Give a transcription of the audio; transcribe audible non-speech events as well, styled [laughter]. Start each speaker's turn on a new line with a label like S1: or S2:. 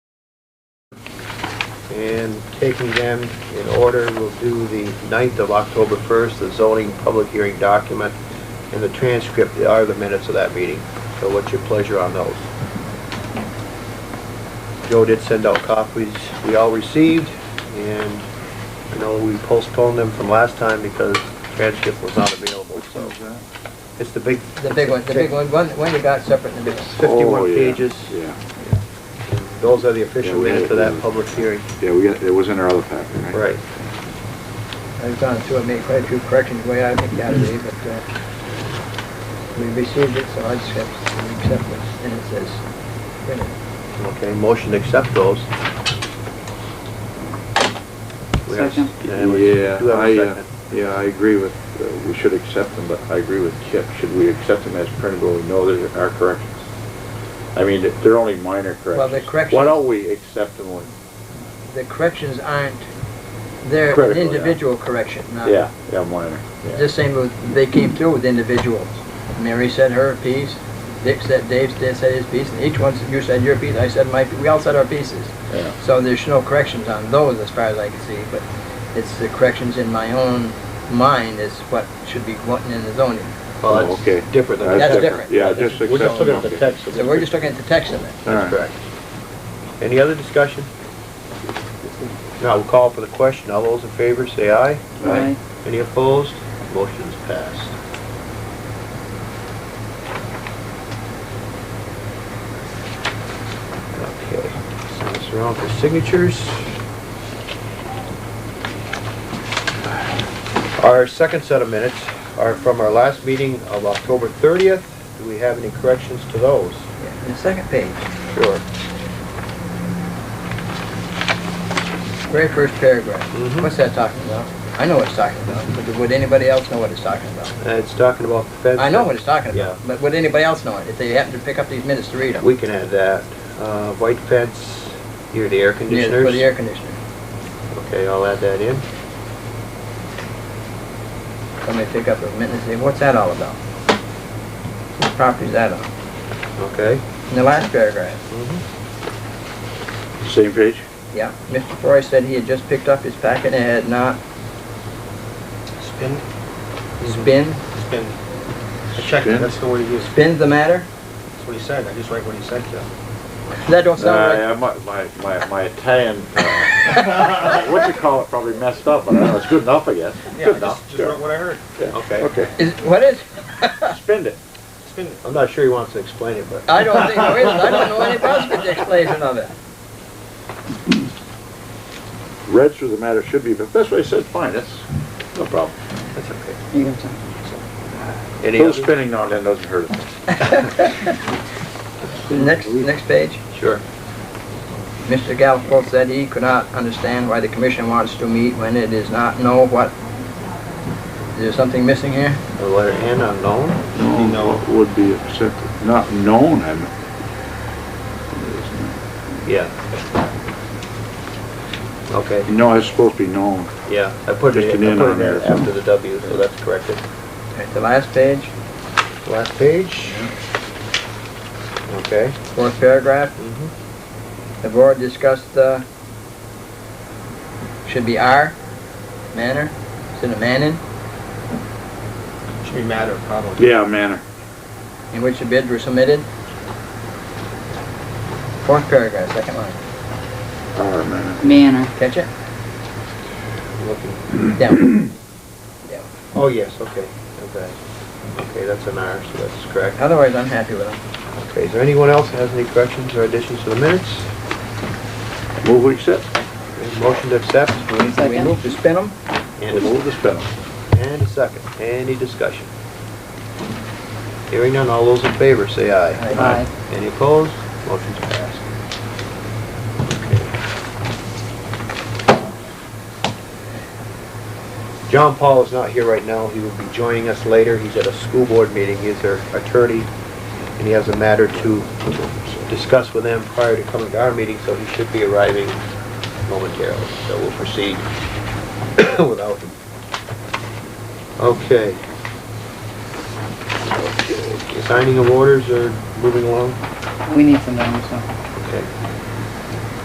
S1: and taking them in order, we'll do the 9th of October 1st, the zoning public hearing document, and the transcript are the minutes of that meeting. So what's your pleasure on those? Joe did send out copies we all received, and I know we postponed them from last time because transcript was not available, so it's the big
S2: The big one, the big one, one, one you got separate in the middle.
S1: 51
S3: Oh, yeah,
S1: pages.
S3: Yeah,
S1: Those are the official
S3: Yeah, we had
S1: minutes of
S3: it.
S1: that public hearing.
S3: yeah, we got, it was in our other packet, right?
S2: I've gone through and made quite a few corrections, the way I think that is, but, uh, we received it, so I accept, we accept this, and it says, you know,
S1: Okay, motion to accept those. We have-
S4: Second.
S1: and we
S3: Yeah,
S1: do have a
S3: I, uh,
S1: second.
S3: yeah, I agree with, uh, we should accept them, but I agree with Kip. Should we accept them as printed when we know there are corrections? I mean, they're only minor corrections.
S2: Well, the corrections-
S3: Why don't we accept them when,
S2: the corrections aren't, they're an
S3: Critical, yeah.
S2: individual correction, not.
S3: yeah, yeah, minor. yeah.
S2: Just same with, they came through with individuals. Mary said her piece, Dick said, Dave said said his piece, and each one, said- you said your piece, I said my, we all said our pieces.
S3: Yeah.
S2: So there's no corrections on those as far as I can see, but it's the corrections in my own mind is what should be wanting in the zoning.
S1: Well,
S3: Oh, okay.
S1: that's different than.
S2: That's
S1: that.
S2: different.
S3: Yeah,
S1: We're
S3: just
S1: just
S3: accept
S1: looking
S3: them.
S1: at the
S3: okay.
S1: text. of
S2: So
S1: it.
S2: we're just looking at the text of it.
S3: All
S1: That's
S3: right.
S1: correct. Any other discussion? Now, we'll call for the question. All those in favor, say aye.
S4: Aye.
S1: Any opposed? Motion's passed. Okay, send this around for signatures. Our second set of minutes are from our last meeting of October 30th. Do we have any corrections to those?
S2: Yeah, The second page,
S1: Sure.
S2: very first paragraph.
S1: Mhm.
S2: What's that talking about? I know what it's talking about, but would anybody else know what it's talking about?
S1: Uh, It's talking about the fence.
S2: I know what it's talking
S1: Yeah.
S2: about, but would anybody else know it if they happen to pick up these minutes to read them?
S1: We can add that. Uh, White fence near the air
S2: Yeah,
S1: conditioners.
S2: For the air conditioner.
S1: Okay, I'll add that in.
S2: Somebody pick up a minute and say, what's that all about? Whose property's that on?
S1: Okay.
S2: In the last paragraph,
S3: Same page?
S2: yeah, Mr. Forrest said he had just picked up his packet and had not
S5: Spin,
S2: spin,
S5: spin. I checked it, that's the word he used.
S2: spin the matter?
S5: That's what he said, I just write what he said, Joe.
S2: That don't sound
S3: Uh, yeah, my, my, my, my Italian,
S5: [laughs]
S3: uh, what you call it, probably messed up, but I don't know, it's good enough, I guess.
S5: Yeah,
S3: Good
S5: I just-
S3: enough,
S5: Just wrote
S3: sure.
S5: what I heard,
S3: Yeah.
S1: Okay.
S5: [laughs]
S3: Okay,
S2: right. Is, what is?
S3: spend it.
S5: spin it.
S1: I'm not sure he wants to explain it, but
S2: I don't think there is, I don't know any possible explanation of it.
S3: read through the matter should be, but that's what I said, fine, that's no problem.
S1: that's okay.
S4: You got time.
S1: Any
S3: Those
S1: other?
S3: spinning now and then doesn't hurt us.
S2: Next, next page,
S1: Sure.
S2: Mr. Galfour said he could not understand why the commission wants to meet when it does not know what, is there something missing here?
S1: The letter N unknown?
S3: No,
S5: No.
S3: Would be accepted, not known, I mean.
S1: Yeah. Okay,
S3: No, it's supposed to be known.
S1: yeah, I put
S3: Just
S1: it,
S3: an
S1: in- I
S3: N
S1: put it
S3: on there
S1: there
S3: or something.
S1: after the W, so that's corrected.
S2: At the last page,
S1: Last page? Okay.
S2: fourth paragraph,
S1: Mhm.
S2: The board discussed, uh, should be our manner, instead of Manning,
S5: Should be matter, probably.
S3: Yeah, manner.
S2: in which the bids were submitted. Fourth paragraph, second line.
S3: Our manner.
S4: Manner.
S2: Catch it?
S1: Looking.
S2: Down.
S1: Oh, yes, okay, okay. Okay, that's an R, so that's correct.
S2: Otherwise, I'm happy with them.
S1: Okay, is there anyone else that has any corrections or additions to the minutes?
S3: Move we accept.
S1: Okay, Motion to accept
S2: Do we move to spin them?
S1: and
S3: We'll
S1: a
S3: move the spin.
S1: And a second. Any discussion? Hearing none, all those in favor say aye.
S4: Aye.
S1: Any opposed? Motion's passed. John Paul is not here right now. He will be joining us later. He's at a school board meeting. He's their attorney, and he has a matter to discuss with them prior to coming to our meeting, so he should be arriving momentarily. So we'll proceed [coughs] without him. Okay. Signing of orders or moving along?
S4: We need some down, so.
S1: Okay.